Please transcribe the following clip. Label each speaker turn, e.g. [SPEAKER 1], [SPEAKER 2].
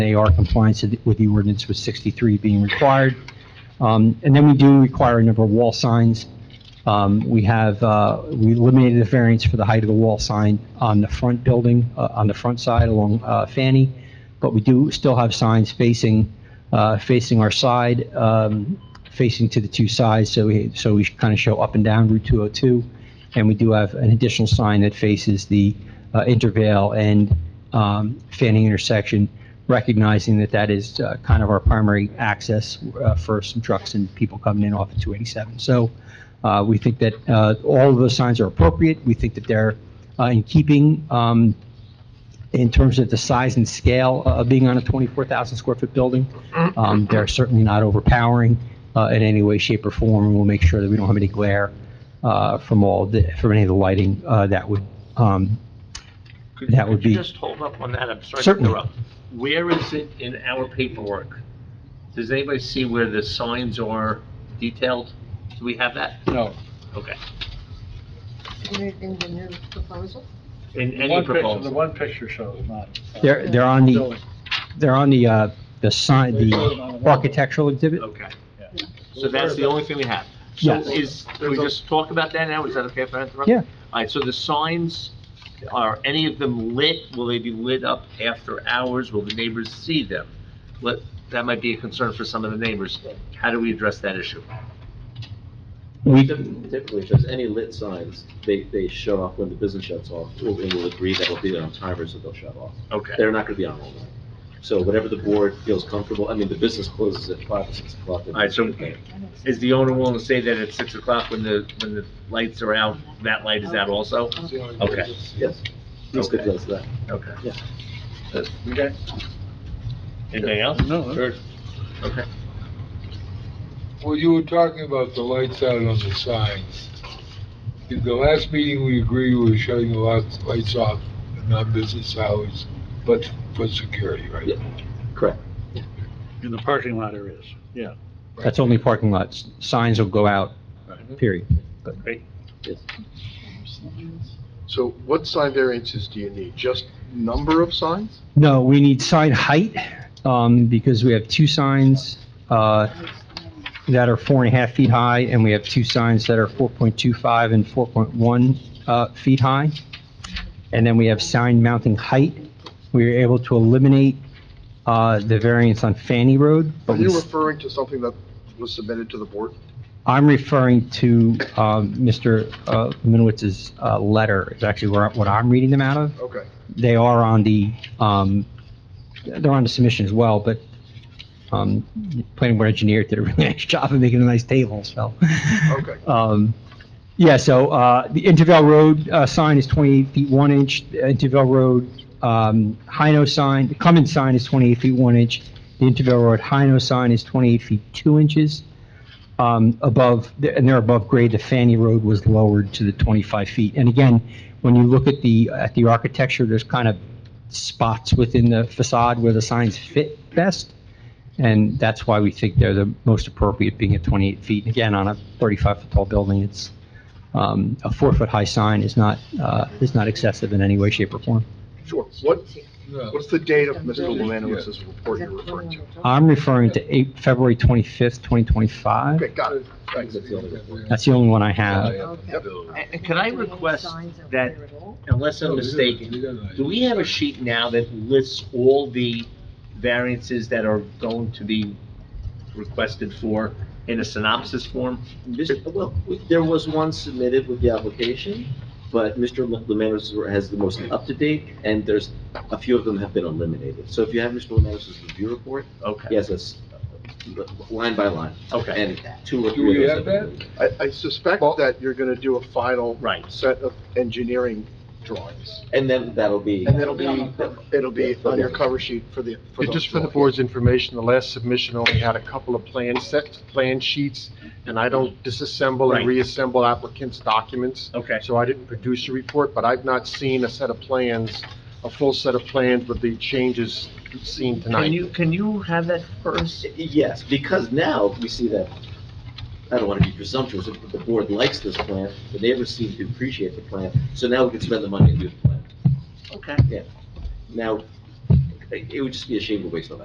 [SPEAKER 1] AR compliance with the ordinance with 63 being required. Um, And then we do require a number of wall signs. Um, We have, uh, we eliminated the variance for the height of the wall sign on the front building, uh, on the front side along uh, Fanny, but we do still have signs facing, uh, facing our side, um, facing to the two sides, so we, so we kind of show up and down Route 202. And we do have an additional sign that faces the uh, Intervale and um, Fanning intersection, recognizing that that is uh, kind of our primary access uh, for some trucks and people coming in off of 287. So uh, we think that uh, all of those signs are appropriate. We think that they're uh, in keeping um, in terms of the size and scale uh, of being on a 24,000 square foot building. Um, They're certainly not overpowering uh, in any way, shape, or form, and we'll make sure that we don't have any glare uh, from all, the- from any of the lighting uh, that would um,
[SPEAKER 2] Could-
[SPEAKER 1] That would
[SPEAKER 2] could you
[SPEAKER 1] be-
[SPEAKER 2] Just hold up on that, I'm sorry to
[SPEAKER 1] Certainly.
[SPEAKER 2] interrupt. Where is it in our paperwork? Does anybody see where the signs are detailed? Do we have that?
[SPEAKER 3] No,
[SPEAKER 2] Okay.
[SPEAKER 4] in in the new proposal?
[SPEAKER 2] In
[SPEAKER 3] the
[SPEAKER 2] any
[SPEAKER 3] one picture, the
[SPEAKER 2] proposal?
[SPEAKER 3] one picture shows not.
[SPEAKER 1] They're, they're on the, they're on the, uh, the sign, the architectural exhibit?
[SPEAKER 2] Okay. So that's the only thing we have. So
[SPEAKER 1] Yes.
[SPEAKER 2] is, can we just talk about that now? Is that okay if I interrupt?
[SPEAKER 1] Yeah.
[SPEAKER 2] All right, so the signs, are any of them lit? Will they be lit up after hours? Will the neighbors see them? Let, that might be a concern for some of the neighbors. How do we address that issue?
[SPEAKER 1] We,
[SPEAKER 5] Typically, just any lit signs, they, they shut off when the business shuts off, and we'll agree that it'll be there on timers, so they'll shut off.
[SPEAKER 2] Okay.
[SPEAKER 5] They're not gonna be on all night. So whatever the board feels comfortable, I mean, the business closes at five or six o'clock.
[SPEAKER 2] All right, so is the owner willing to say that at six o'clock when the, when the lights are out, that light is out also? Okay,
[SPEAKER 5] Yes. Please
[SPEAKER 2] Okay.
[SPEAKER 5] address that.
[SPEAKER 2] okay.
[SPEAKER 5] Yeah.
[SPEAKER 2] Okay. Anything else?
[SPEAKER 3] No,
[SPEAKER 2] Sure. Okay.
[SPEAKER 6] Well, you were talking about the lights out on the signs. In the last meeting, we agreed we were shutting the lights, lights off at non-business hours, but for security, right?
[SPEAKER 5] Yeah. Correct.
[SPEAKER 3] in the parking lot there is.
[SPEAKER 1] that's only parking lots. Signs will go out, period.
[SPEAKER 7] So what sign variances do you need? Just number of signs?
[SPEAKER 1] No, we need sign height, um, because we have two signs, uh, that are four and a half feet high, and we have two signs that are 4.25 and 4.1, uh, feet high. And then we have sign mounting height. We were able to eliminate, uh, the variance on Fanny Road,
[SPEAKER 7] Are
[SPEAKER 1] but we
[SPEAKER 7] you
[SPEAKER 1] still
[SPEAKER 7] referring to something that was submitted to the board?
[SPEAKER 1] I'm referring to um, Mr. uh, Minowitz's uh, letter, is actually where- what I'm reading them out of.
[SPEAKER 7] Okay.
[SPEAKER 1] They are on the, um, they're on the submission as well, but um, the planning board engineer did a really nice job of making a nice table, so.
[SPEAKER 7] Okay.
[SPEAKER 1] Um, Yeah, so uh, the Intervale Road uh, sign is 28 feet 1 inch, The Intervale Road um, Hino sign, the Cummins sign is 28 feet 1 inch, the Intervale Road Hino sign is 28 feet 2 inches. Um, Above, and they're above grade, the Fanny Road was lowered to the 25 feet. And again, when you look at the, at the architecture, there's kind of spots within the facade where the signs fit best. And that's why we think they're the most appropriate, being at 28 feet. Again, on a 35-foot tall building, it's, um, a four-foot-high sign is not, uh, is not excessive in any way, shape, or form.
[SPEAKER 7] Sure. What,
[SPEAKER 6] No.
[SPEAKER 7] what's the date of Mr. Lemanowitz's report you're referring to?
[SPEAKER 1] I'm referring to eight- February 25th, 2025.
[SPEAKER 7] Okay, got it. Thanks.
[SPEAKER 5] That's the only report.
[SPEAKER 1] That's the only one I have.
[SPEAKER 2] And and can I request that, unless I'm mistaken, do we have a sheet now that lists all the variances that are going to be requested for in a synopsis form?
[SPEAKER 5] Mr. Well, we- there was one submitted with the application, but Mr. Lemanis has the most up-to-date, and there's, a few of them have been eliminated. So if you have Mr. Lemanis's review report, he
[SPEAKER 2] Okay,
[SPEAKER 5] has us uh, line by line,
[SPEAKER 2] okay,
[SPEAKER 5] and two or
[SPEAKER 6] Do
[SPEAKER 5] three
[SPEAKER 6] we
[SPEAKER 5] of
[SPEAKER 6] have
[SPEAKER 5] those.
[SPEAKER 6] that?
[SPEAKER 7] I, I suspect that you're gonna do a final
[SPEAKER 2] right.
[SPEAKER 7] set of engineering drawings.
[SPEAKER 5] And then that'll be.
[SPEAKER 7] And that'll be, it'll be on your cover sheet for the, for
[SPEAKER 8] Just for the
[SPEAKER 7] the.
[SPEAKER 8] board's information, the last submission only had a couple of plan sets, plan sheets, and I don't disassemble
[SPEAKER 2] Right.
[SPEAKER 8] and reassemble applicants' documents,
[SPEAKER 2] Okay,
[SPEAKER 8] so I didn't produce a report, but I've not seen a set of plans, a full set of plans with the changes seen
[SPEAKER 2] can
[SPEAKER 8] tonight.
[SPEAKER 2] you, can you have that first?
[SPEAKER 5] Yes, because now we see that, I don't want to be presumptuous, but the board likes this plan, the neighbors seem to appreciate the plan, so now we can spend the money and do the plan.
[SPEAKER 2] Okay.
[SPEAKER 5] Now, it it would just be a shame to waste all that.